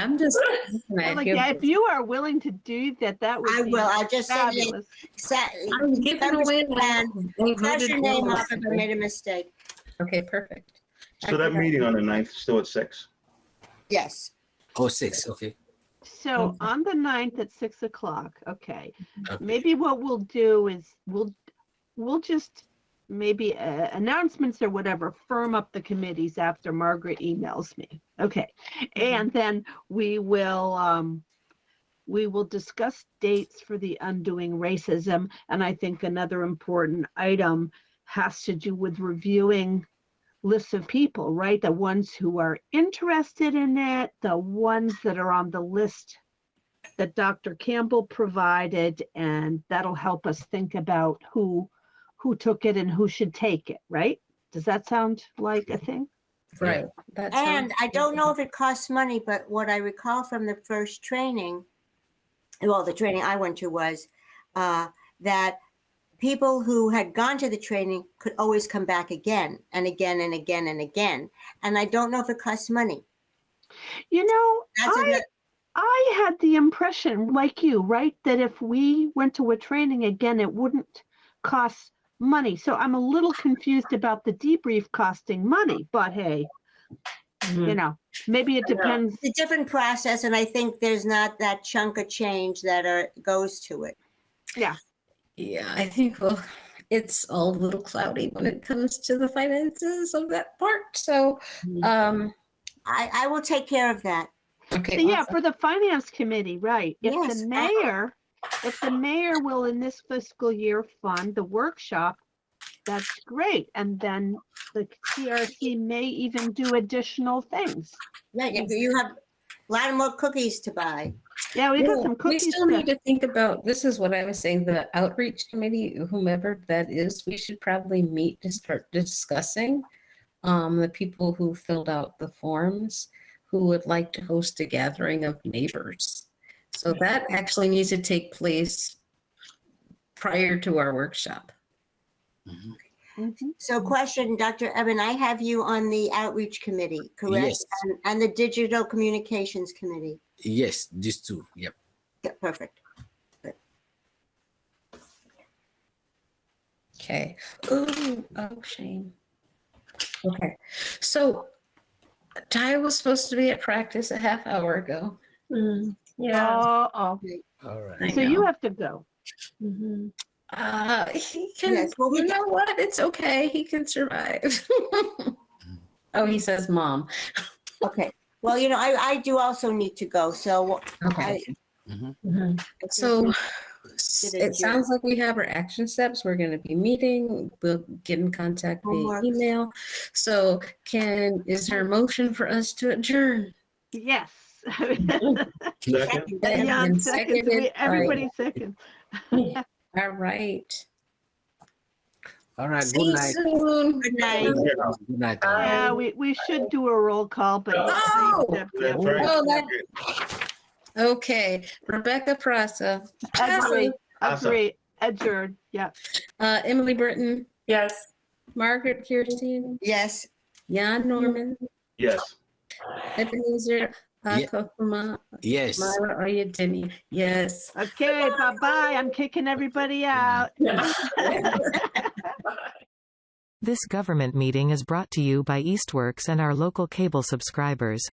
I'm just. listen, I I'm like, feel- yeah, if you are willing to do that, that would I be will. I just said, it. fabulous. Sa- I'm giving away. my- they cross your voted name yes. off if I made a mistake. Okay, perfect. So that meeting on the ninth, still at six. Yes. Oh, six, okay. So Okay. on the ninth at six o'clock, okay. Okay. Maybe what we'll do is we'll, we'll just maybe uh, announcements or whatever, firm up the committees after Margaret emails me. Okay. Mm-hmm. And then we will, um, we will discuss dates for the undoing racism. And I think another important item has to do with reviewing lists of people, right? The ones who are interested in it, the ones that are on the list that Dr. Campbell provided, and that'll help us think about who who took it and who should take it, right? Does that sound like a thing? Right. that And sounds I don't good. know if it costs money, but what I recall from the first training, well, the training I went to was uh, that people who had gone to the training could always come back again and again and again and again. And I don't know if it costs money. You know, That's I- another- I had the impression, like you, right, that if we went to a training again, it wouldn't cost money. So I'm a little confused about the debrief costing money, but hey, Mm-hmm. you know, maybe it I know. depends. it's a different process, and I think there's not that chunk of change that are, goes to it. Yeah, I think, well, it's all a little cloudy when it comes to the finances of that part, so, Mhm. um, I, I will take care of that. okay. Yeah, awesome. for the finance committee, right. If Yes, the I- mayor, if the mayor will in this fiscal year fund the workshop, that's great. And then the CRC may even do additional things. Yeah, you, Yes. you have a lot more cookies to buy. Yeah, we got Yeah, some We cookies. still to- need to think about, this is what I was saying, the outreach committee, whomever that is, we should probably meet to start discussing um, the people who filled out the forms, who would like to host a gathering of neighbors. So that actually needs to take place prior to our workshop. Mhm. Mhm. Mm-hmm. So question, Dr. Evan, I have you on the outreach committee, correct? Yes. And, and the digital communications committee. Yes, these two, yep. Yeah, perfect. Okay. Ooh, oh, shame. Okay, so Ty was supposed to be at practice a half hour ago. Yeah. Uh-oh. All right. I So you know. have to go. Uh, he can. Yes, well, we you got- know what? It's okay. He can survive. oh, he says, "Mom." Okay. Well, you know, I, I do also need to go, so Okay. Mhm. So Did it it here. sounds like we have our action steps. We're going to be meeting. We'll get in contact via Homework. email. So, can is there a motion for us to adjourn? Yes. Second? Thank you. Yeah. Thank Beyond And seconds. seconded We- by- Everybody seconds. All right. All right, See good you night. soon. Good night. Yeah. Good night. all right. Yeah, we, we should do a roll call, but. Oh! Yeah, Frank. Oh, that- Okay, Rebecca Prasa, Agree, Awesome. agree, adjourned, yeah. uh, Emily Britton, Yes. Margaret Kirstein, Yes. Jan Norman, Yes. Ebenezer Yeah. Akokuma, Yes. Myra Oyedemi. Yes. Okay, bye-bye. I'm kicking everybody out. This government meeting is brought to you by Eastworks and our local cable subscribers.